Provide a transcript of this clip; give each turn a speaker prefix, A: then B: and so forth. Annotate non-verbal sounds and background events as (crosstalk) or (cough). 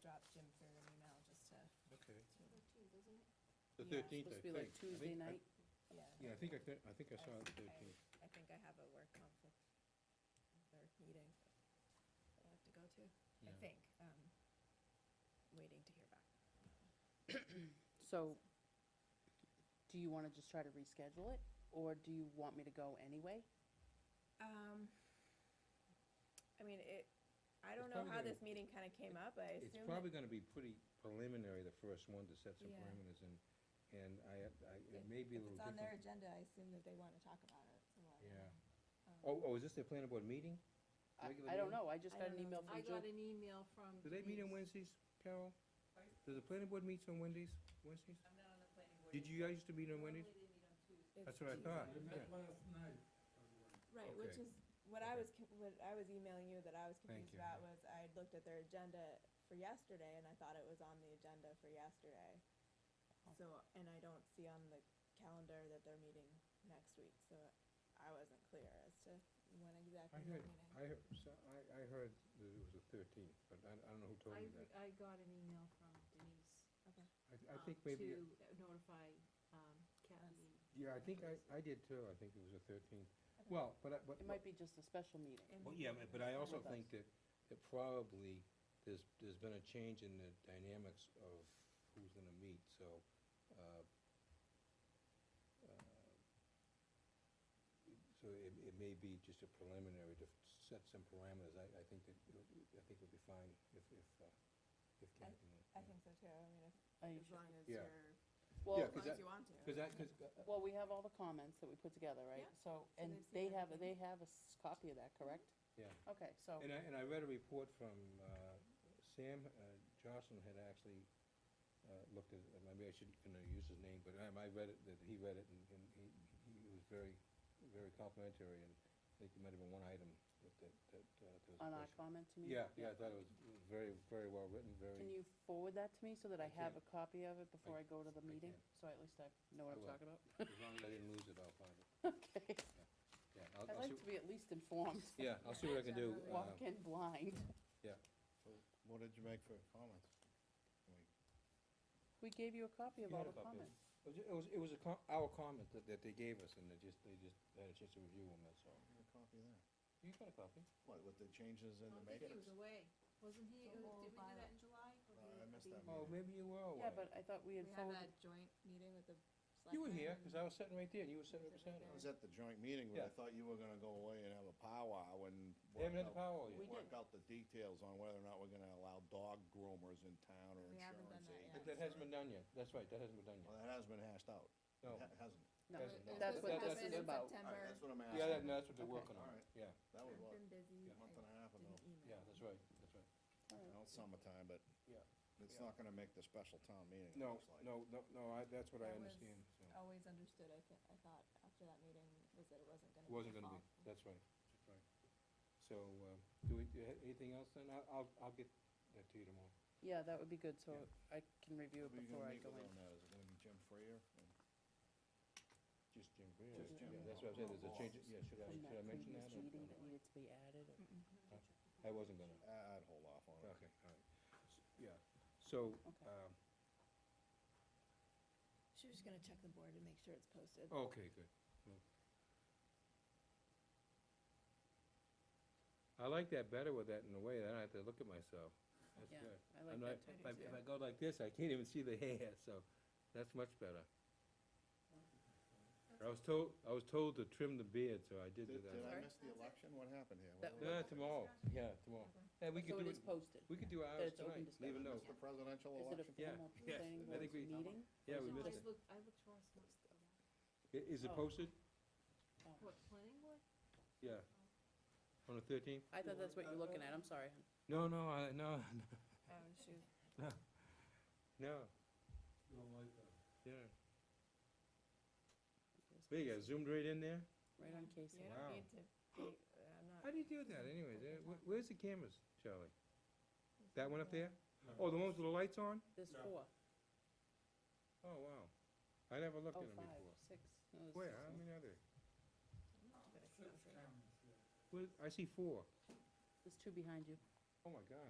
A: drop Jim through an email just to,
B: Okay.
C: Thirteenth, isn't it?
B: The
A: Yeah.
B: thirteenth, I
D: Supposed to
B: think.
D: be like
B: I
D: Tuesday
B: think I-
D: night?
A: yeah.
B: Yeah, I think I, thi- I think I saw
A: I-
B: the
A: I-
B: thirteenth.
A: I think I have a work conflict, or meeting that I have to go to, I
B: Yeah.
A: think, um, waiting to hear back.
D: So, do you wanna just try to reschedule it, or do you want me to go anyway?
A: Um, I mean, it, I don't
B: It's
A: know
B: probably
A: how
B: gonna-
A: this meeting kinda came up, I
B: It's
A: assume.
B: probably gonna be pretty preliminary, the first one, to set some
A: Yeah.
B: parameters, and, and I, I, it may be a little
A: If it's on their
B: different.
A: agenda, I assume that they wanna talk about it, so um, I.
B: Yeah. Oh, oh, is this their planning board meeting?
D: I,
B: Regular
D: I don't
B: meeting?
D: know, I just
A: I
D: got
A: don't
D: an
A: know.
D: email
C: I
D: from
C: got
D: Jill.
C: an email from.
B: Do they meet on
C: Denise.
B: Wednesdays, Carol? Do the planning board meets on Wednesdays, Wednesdays?
E: I'm not on the planning board.
B: Did you guys used to meet on Wednesdays?
E: Normally they meet on Tuesday.
A: It's
B: That's what I
A: Tuesday.
B: thought.
F: We
B: Yeah.
F: met last night, by the way.
A: Right, which
B: Okay.
A: is, what I
B: Okay.
A: was, con- what I was emailing you that I was
B: Thank
A: confused
B: you.
A: about was I had looked at their agenda for yesterday and I thought it was on the agenda for yesterday. So, and I don't see on the calendar that they're meeting next week, so I wasn't clear as to when
B: I
A: exactly they're
B: heard,
A: meeting.
B: I heard, so I, I heard that it was the thirteenth, but I, I don't know who told
C: I,
B: me
C: re-
B: that.
C: I got an email from Denise.
B: I, I
C: um,
B: think maybe,
C: To notify, um, Kathleen.
B: yeah, I think I, I did too, I think it was the thirteenth.
A: Okay.
B: Well, but I, but.
D: It might be just a special meeting.
A: And
B: Well,
A: we-
B: yeah, but- but I also
D: With us.
B: think that, that probably there's, there's been a change in the dynamics of who's gonna meet, so, uh, uh, so it, it may be just a preliminary to set some parameters. I, I think that, it'll- I think it'll be fine if, if, uh, if Kathy.
A: I think so too, I mean, if,
D: Are you
A: as
D: sure?
A: long as
B: Yeah.
A: you're,
B: Yeah,
D: Well,
A: as
B: 'cause
A: long as
B: that-
A: you want to.
B: Cause I, cause, uh,
D: well, we have all the comments that we put together, right?
A: Yeah.
D: So, and
A: they've seen
D: they have, they
A: everything.
D: have a s- copy of that, correct?
B: Yeah.
D: Okay, so,
B: And I, and I read a report from, uh, Sam, uh, Johnson had actually, uh, looked at, uh, maybe I shouldn't, you know, use his name, but um, I, I read it, that he read it and, and he, he was very, very complimentary and I think there might have been one item that, that, that, uh, there was. a
D: on our
B: question.
D: comments, you mean?
B: Yeah, yeah, I thought it was it was very, very well written,
D: Can
B: very,
D: you forward that to me so that
B: I
D: I have
B: can't.
D: a copy of it before I go to the
B: I
D: meeting?
B: can't.
D: So at least I know what
B: I
D: I'm
B: will.
D: talking about?
B: (laughs) as long as I didn't lose it, I'll find it.
D: Okay,
B: Yeah, I'll,
D: I'd
B: I'll
D: like
B: see,
D: to be at least informed,
B: (laughs) yeah, I'll see what I can do.
A: Generally.
B: uh,
D: walk in blind.
G: What did you make for comments?
D: We gave you a copy of
B: You
D: all
B: had
D: the
B: a copy of
D: comments.
B: It was, it was, it was a com- our comment that, that they gave us and they just, they just had a chance to review them, that's all.
G: Give me a copy of that.
B: You got a copy?
G: What, with the changes in
C: I
G: the
C: don't think
G: matrix?
C: he was away, wasn't he,
A: The
C: uh,
A: whole
C: did we do
A: bylaw.
C: that in July? Or did
G: Uh, I
C: it
G: missed
C: be-
G: that.
B: Oh, maybe you were away.
D: Yeah, but I thought we
A: We
D: had
A: had
D: forwarded,
A: that joint meeting with the selectmen.
B: You were here,
A: and-
B: because I was sitting right there, and you were sitting right
A: Was it right
B: beside
G: I
B: me.
G: was at the joint meeting where I
B: Yeah.
G: thought you were gonna go away and have a powwow and
B: They
G: work
B: haven't had the
G: out,
B: power
D: We
B: yet.
G: work
D: did.
G: out the details on whether or not we're gonna allow dog groomers in town or
A: We haven't done that
G: insurance agents.
A: yet.
B: But that hasn't been done yet, that's right, that hasn't been done
G: Well,
B: yet.
G: that has been hashed out.
B: No,
G: It ha- hasn't.
D: no,
B: Yes, no. That-
D: that's what
B: that-
D: this
B: that's-
D: is about.
G: All right, that's what I'm
B: yeah, that,
G: asking.
B: no, that's what they're
D: Okay.
B: working on,
G: All right.
B: yeah,
G: That was what,
A: I've been busy.
G: a month and a half
A: I
G: ago.
A: didn't email.
B: yeah, that's right, that's right.
D: All right.
G: Well, it's summertime, but
B: Yeah.
G: it's
B: Yeah.
G: not gonna make the special town meeting, it
B: No,
G: looks like.
B: no, no, no, I, that's what I
A: That was-
B: understand, so,
A: always understood, I thi- I thought after that meeting, was that it wasn't gonna
B: it
A: be.
B: wasn't
A: your
B: gonna be,
A: fault.
B: that's right, that's right. So, uh, do we, do you have anything else then? I'll, I'll, I'll get that to you tomorrow.
D: Yeah, that would be good, so I can review it
G: Who are you
D: before
G: gonna
D: I
G: meet
D: go
G: with
D: in.
G: on that? Is it gonna be Jim Freer?
B: Just Jim Greer.
G: Just Jim.
B: Yeah, that's what I said, there's a change, yeah, should I,
D: From
B: should I
D: that
B: mention
D: previous
B: that? or-
D: meeting
B: or
D: that
B: not?
D: needed to be added, or-
B: I wasn't gonna.
G: I- I'd hold off on it.
B: Okay, all right. S- Yeah, so,
D: Okay.
B: um,
A: She was just gonna check the board and make sure it's posted.
B: okay, good. Well. I like that better with that in a way, then I have to look at myself. That's
D: Yeah,
B: good.
D: I
B: I'm not,
D: like that
B: if
D: type
B: I,
D: of
B: if I go like this, I can't even see the (laughs) hair, so that's much better. I was told, I was told to trim the beard, so I did do
G: Did, did I
B: that.
G: miss the election? What happened here?
D: That
G: What
B: Yeah,
G: was-
B: tomorrow, yeah, tomorrow. Yeah, we
D: So
B: could
D: it
B: do,
D: is
B: it-
D: posted.
B: we could do ours
D: it's
B: tonight,
D: open
B: leave a
D: discussion.
B: note.
G: Missed the presidential
D: Is it a
G: election?
B: Yeah,
D: formal
B: yeah,
D: planning
G: I
D: board
B: think we-
D: meeting?
B: Yeah, we
C: No,
B: missed
C: I
B: it.
C: looked, I looked for us last,
B: I- Is it
D: Oh.
B: posted?
D: Oh.
C: what, planning board?
B: Yeah. On the thirteenth?
D: I thought that's what you're looking at, I'm sorry.
B: No, no, I, no, (laughs)
A: Oh, shoot.
B: no,
F: You don't like that.
B: yeah. There you go, zoomed right in there?
D: Right on Casey.
A: You don't
B: Wow.
A: need to be, I'm not.
B: How do you do that anyways? Eh, wh- Where's the cameras, Charlie? That one up there? Oh, the ones with the lights on?
D: There's
F: Yeah.
D: four.
B: Oh, wow. I never looked
D: Oh,
B: at them
D: five,
B: before.
D: six. No, there's
B: Where,
D: six
B: how
D: ones.
B: many are there?
A: uh,
F: Six cameras, yeah.
B: Where, I see four.
D: There's two behind you.
B: Oh, my God.